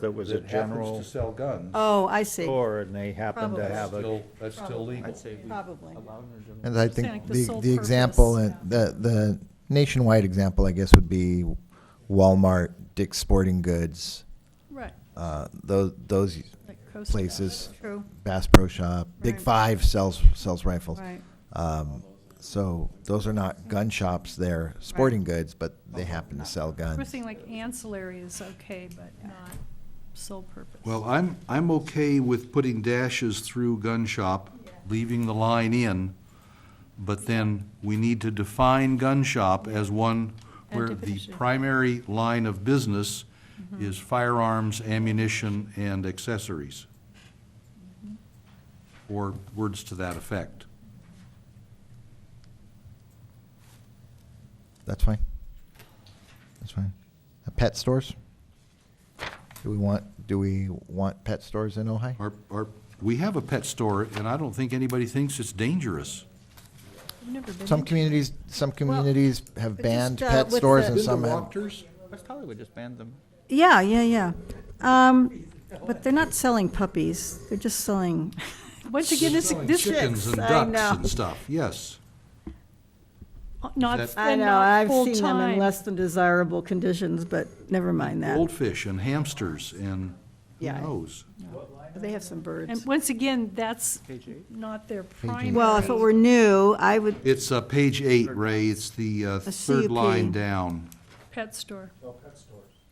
that was a that happens general to sell guns, Oh, I see, store and they happened to Probably. have a, still, that's still Probably. legal. I'd say we probably. allow them to. And I Saying like think the the, sole the example, purpose, and the, the nationwide example, I guess, would be Walmart, Dick's Sporting Goods, Right. uh, those, those like Coast Guard. places, True, Bass Pro Shop, Big Right. Five sells, sells rifles. right. Um, so those are not gun shops, they're sporting goods, but they happen to sell We're guns. saying like ancillary is okay, but not sole purpose. Well, I'm, I'm okay with putting dashes through gun shop, leaving the line in, but then we need to define gun shop as one where And the definition. Mm-hmm. primary line of business is firearms, ammunition, and accessories. Mm-hmm. Or words to that effect. That's fine. That's fine. Uh, Pet stores? Do we want, do we want pet stores in Ojai? Our, our, we have a pet store, and I don't think anybody thinks it's dangerous. I've never been Some into- communities, some communities have just, banned uh, pet with stores the- and some have. West Hollywood just banned them. Yeah, yeah, yeah. Um, but they're not selling puppies, they're just selling, once again, this, Selling this. Chickens and I ducks know. and stuff, yes. Not, That's- I and know, not I've seen them in full-time. less than desirable conditions, but never mind that. Goldfish and hamsters and who Yeah. knows? They have some birds. And once again, that's Page eight. not their eight. primary. Well, if it were new, I would, It's uh, page eight, Ray, it's the uh, third CUP. line down. Pet store.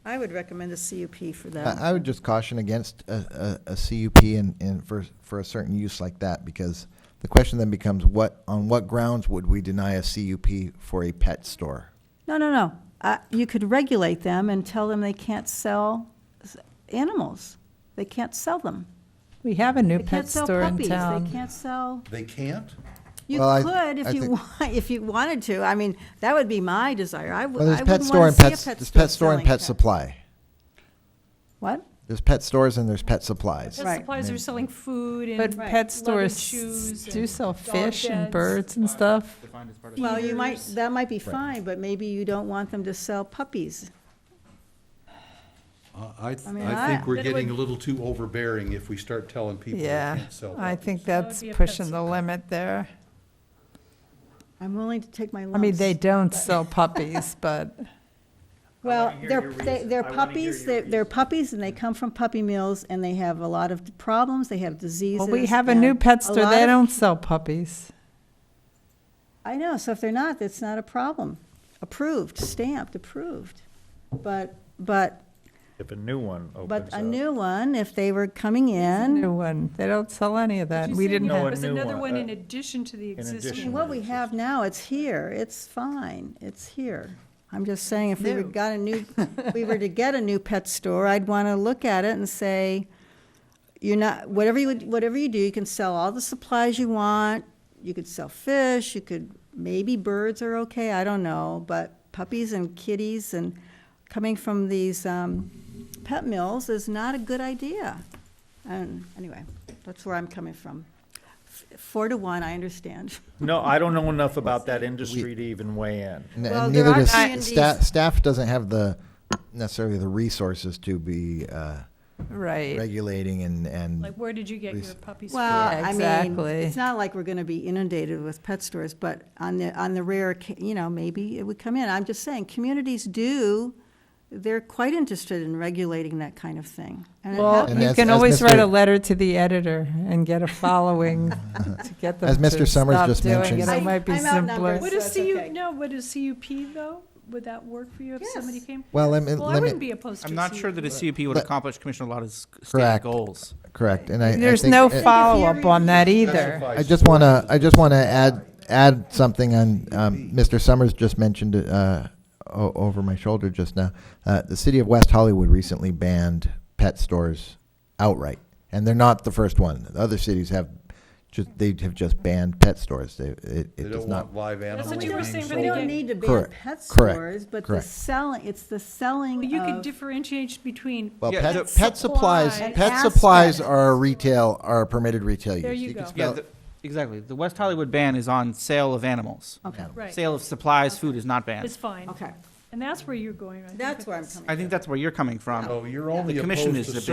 I would recommend a CUP for Uh, that. I I would just caution against a, a, a CUP and, and for, for a certain use like that, because the question then becomes what, on what grounds would we deny a CUP for a pet store? No, no, no. Uh, You could regulate them and tell them they can't sell s- animals. They can't sell them. We have a new They can't pet sell store in puppies. town. They can't sell, They can't? you Well, I- could I if you think- want, if you wanted to. I mean, that would be my desire. I would, Well, I there's pet wouldn't store want and to see a pet store pet, there's pet store and selling pet pet- supply. What? There's pet stores and there's pet supplies. Pet supplies are selling food and. But pet leather stores shoes do and sell dog fish and beds. birds and stuff. Defined as part of. Well, you might, Feeders. that might be fine, but maybe you don't want them to sell puppies. Uh, I, th- I mean, I I- think we're That getting would- a little too overbearing if we start telling people they Yeah, can't sell. I puppies. think That would that's be a pet pushing the store. limit there. I'm willing to take my lumps. I mean, they don't sell puppies, but Well, hear they're, your they- reason. they're I wanna hear puppies, your they're, they're puppies, and they come from puppy mills, and they have a lot of problems, they have diseases. well, we have a new and pet a store. lot They of- don't sell puppies. I know, so if they're not, that's not a problem. Approved, stamped, approved. But, but, if a new one opens up. but a new one, if they were coming in, New one. They don't sell any of that. You We said didn't there have, a was new another one, one uh, in addition to the addition. existing. what we have now, it's here, it's fine, it's here. I'm just saying, if we were New. got a new, we were to get a new pet store, I'd want to look at it and say, you're not, whatever you, would- whatever you do, you can sell all the supplies you want. You could sell fish, you could, maybe birds are okay, I don't know, but puppies and kitties and coming from these, um, pet mills is not a good idea. And anyway, that's where I'm coming from. F- Four to one, I understand. No, I don't know enough about that industry to even weigh in. N- Well, there Neither are does, communities- staff, staff doesn't have the, necessarily the resources to be, uh, right. regulating and, and Like, where did you get your Please. puppies from? Well, Yeah, I mean, exactly. it's not like we're gonna be inundated with pet stores, but on the, on the rare, occa- you know, maybe it would come in. I'm just saying, communities do, they're quite interested in regulating that kind of thing. And it And Well, happens. you as- can as always write a Mr. letter to the editor and get a following to get them As Mr. to Summers stop just doing mentioned- it. I- It might be I'm outnumbered. simpler. Would So a it's CU, okay. no, would a CUP though, would that work for you if somebody Yes. came? Well, let me- Well, let I me- wouldn't be opposed to a I'm not sure that a CUP. CUP would But- accomplish Commissioner Lotta's stated Correct. goals. correct. And I, I There's think no it- follow-up on that either. I just want to, I just want to add, add something on, um, Mr. Summers just mentioned, uh, o- over my shoulder just now. Uh, the city of West Hollywood recently banned pet stores outright, and they're not the first one. Other cities have, just, they have just banned pet stores. They, it, They it don't does not. want live animals what you were saying being from the We sold. don't need to ban Correct, pet correct, stores, but the correct. selling, it's the selling Well, you could of, differentiate between, Well, Yeah, pet, the- pet supplies, Supplies. pet An supplies aspect. are retail, are permitted retail use. There you can go. Yeah, spell- the- exactly. The West Hollywood ban is on sale of animals. okay, right, Sale of supplies, food is not banned. it's fine. okay. And that's where you're going, I think. That's with where I'm this. coming I think that's where you're coming from. Oh, you're only The commission opposed is to a bit